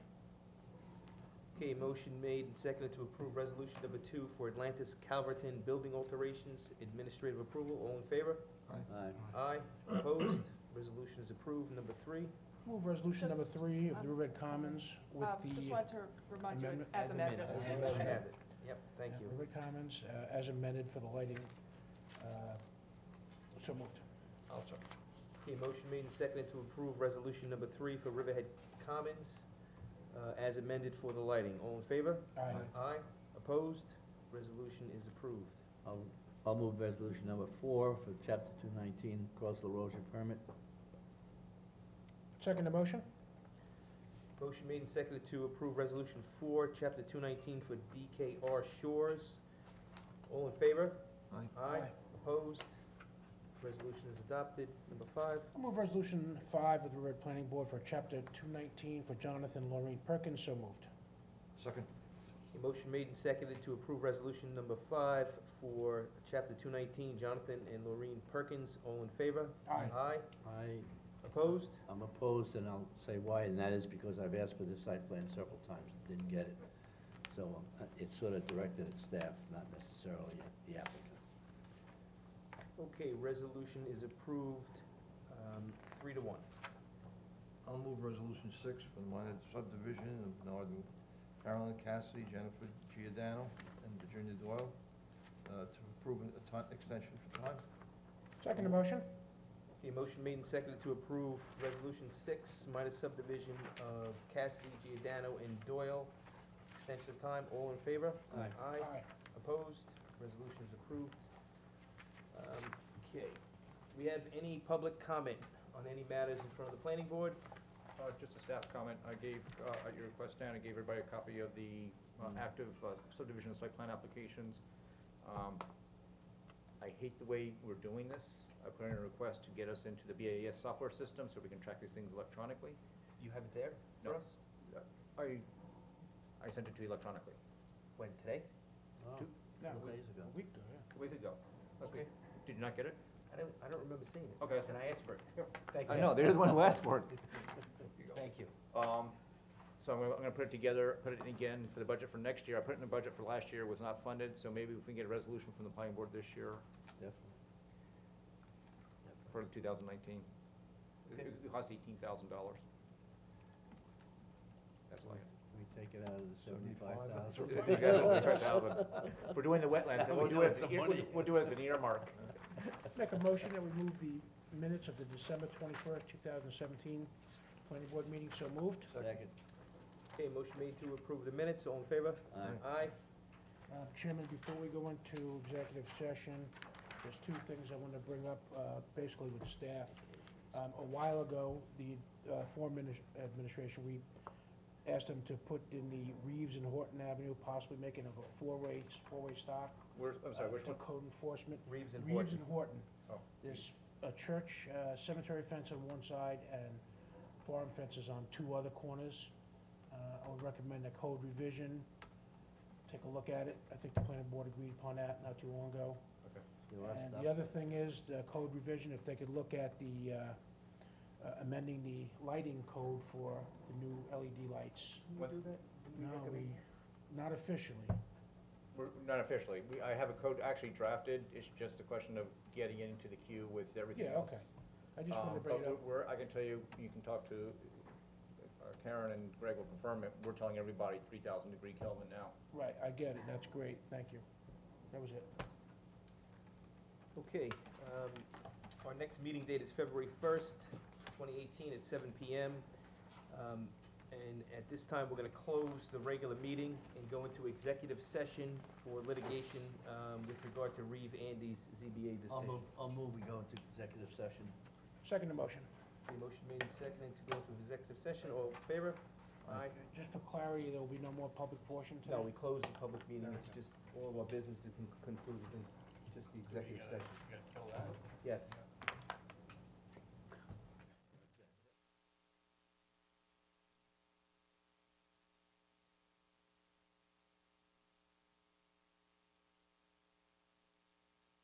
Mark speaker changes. Speaker 1: Okay, motion made and seconded to approve resolution number two for Atlantis Calverton Building Alterations Administrative Approval. All in favor?
Speaker 2: Aye.
Speaker 1: Aye. Opposed? Resolution is approved. Number three.
Speaker 3: Move resolution number
Speaker 4: Just-
Speaker 3: three of the
Speaker 4: um,
Speaker 3: Riverhead Commons with
Speaker 4: Um, Just
Speaker 3: the,
Speaker 4: wanted to remind you, it's
Speaker 3: amendment-
Speaker 4: as
Speaker 3: as
Speaker 4: amended.
Speaker 1: As amended. Yep, thank you.
Speaker 3: Riverhead Commons uh, as amended for the lighting. uh, So moved.
Speaker 1: Okay, motion made and seconded to approve resolution number three for Riverhead Commons, uh, as amended for the lighting. All in favor?
Speaker 3: Aye.
Speaker 1: Aye. Opposed? Resolution is approved.
Speaker 2: I'll, I'll move resolution number four for chapter two nineteen coastal erosion permit.
Speaker 3: Second the motion?
Speaker 1: Motion made and seconded to approve resolution four, chapter two nineteen for DKR Shores. All in favor? Aye.
Speaker 3: Aye.
Speaker 1: Opposed? Resolution is adopted. Number five.
Speaker 3: I'll Move resolution five of the Riverhead Planning Board for chapter two nineteen for Jonathan Lorraine Perkins. So moved.
Speaker 5: Second.
Speaker 1: A motion made and seconded to approve resolution number five for chapter two nineteen, Jonathan and Lorraine Perkins. All in favor?
Speaker 3: Aye.
Speaker 1: Aye.
Speaker 2: I,
Speaker 1: Opposed?
Speaker 2: I'm opposed, and I'll say why, and that is because I've asked for this site plan several times, and didn't get it. So um, uh, it's sort of directed at staff, not necessarily at the applicant.
Speaker 1: Okay, resolution is approved, um, three to one.
Speaker 5: I'll move resolution six for the minor subdivision of Northern Carolyn Cassidy, Jennifer Giordano, and Virginia Doyle, uh, to approve a time, extension for time.
Speaker 3: Second the motion?
Speaker 1: Okay, motion made and seconded to approve resolution six, minus subdivision of Cassidy, Giordano, and Doyle. Extension of time, all in favor?
Speaker 2: Aye.
Speaker 1: Aye. Opposed? Resolution is approved. Um, Okay. We have any public comment on any matters in front of the planning board?
Speaker 6: Uh, Just a staff comment. I gave, uh, at your request, Dan, I gave everybody a copy of the uh,
Speaker 1: Mm.
Speaker 6: active uh, subdivision site plan applications. Um, I hate the way we're doing this. I put in a request to get us into the BAS software system so we can track these things electronically.
Speaker 1: You have it there
Speaker 6: No. Uh,
Speaker 1: for us?
Speaker 6: I, I sent it to you electronically,
Speaker 1: When, today?
Speaker 2: Two,
Speaker 3: No,
Speaker 2: two days ago.
Speaker 3: Oh, a week ago, yeah.
Speaker 6: a week ago. That's
Speaker 1: Okay.
Speaker 6: good. Did you not get it?
Speaker 1: I don't, I don't remember seeing it.
Speaker 6: Okay.
Speaker 1: And I asked for it. Thank you.
Speaker 6: I know, they're the one who asked for it. you go.
Speaker 1: Thank you.
Speaker 6: Um, so I'm gonna, I'm gonna put it together, put it in again for the budget for next year. I put it in the budget for last year, it was not funded, so maybe if we can get a resolution from the planning board this year
Speaker 2: Definitely.
Speaker 6: for two thousand nineteen.
Speaker 1: Okay.
Speaker 6: It it costs eighteen thousand dollars. That's why.
Speaker 2: We take it out of the seventy-five
Speaker 5: Seventy-five, that's
Speaker 2: thousand.
Speaker 5: right.
Speaker 6: If We're doing the wetlands, then we'll do it, as an ear-
Speaker 2: Money.
Speaker 6: we'll do it as an earmark.
Speaker 3: Make a motion that we move the minutes of the December twenty-first, two thousand seventeen planning board meeting, so moved.
Speaker 2: Second.
Speaker 1: Okay, motion made to approve the minutes, all in favor?
Speaker 2: Aye.
Speaker 1: Aye.
Speaker 3: Uh, Chairman, before we go into executive session, there's two things I want to bring up, uh, basically with staff. Um, A while ago, the uh, former adminis- administration, we asked them to put in the Reeves and Horton Avenue, possibly making a four-way, four-way stop.
Speaker 6: Where's, I'm sorry,
Speaker 3: uh,
Speaker 6: which
Speaker 3: to
Speaker 6: one?
Speaker 3: code enforcement.
Speaker 1: Reeves and
Speaker 3: Reeves
Speaker 1: Horton.
Speaker 3: and Horton.
Speaker 6: Oh.
Speaker 3: There's a church uh, cemetery fence on one side and farm fences on two other corners. Uh, I would recommend a code revision, take a look at it. I think the planning board agreed upon that not too long ago.
Speaker 2: There are
Speaker 3: And
Speaker 2: stop
Speaker 3: the other
Speaker 2: signs.
Speaker 3: thing is, the code revision, if they could look at the, uh, uh, amending the lighting code for the new LED lights.
Speaker 6: What-
Speaker 3: No, we, not officially.
Speaker 6: We're, not officially, we, I have a code actually drafted, it's just a question of getting it into the queue with everything
Speaker 3: Yeah,
Speaker 6: else.
Speaker 3: okay. I just wanted to
Speaker 6: Um,
Speaker 3: bring it
Speaker 6: but
Speaker 3: up.
Speaker 6: we're, I can tell you, you can talk to, uh, Karen and Greg will confirm it, we're telling everybody three thousand degree Kelvin now.
Speaker 3: Right, I get it, that's great, thank you. That was it.
Speaker 1: Okay, um, our next meeting date is February first, twenty eighteen, at seven PM. Um, and at this time, we're gonna close the regular meeting and go into executive session for litigation, um, with regard to Reeve Andy's ZBA
Speaker 2: I'll
Speaker 1: decision.
Speaker 2: move, I'll move, we go into executive session.
Speaker 3: Second the motion.
Speaker 1: The motion made and seconded to go into executive session, all in favor? Aye.
Speaker 3: Just for clarity, there will be no more public portion today?
Speaker 1: No, we closed the public meeting, it's just all of our business is con- concluded in just the executive session. Yes.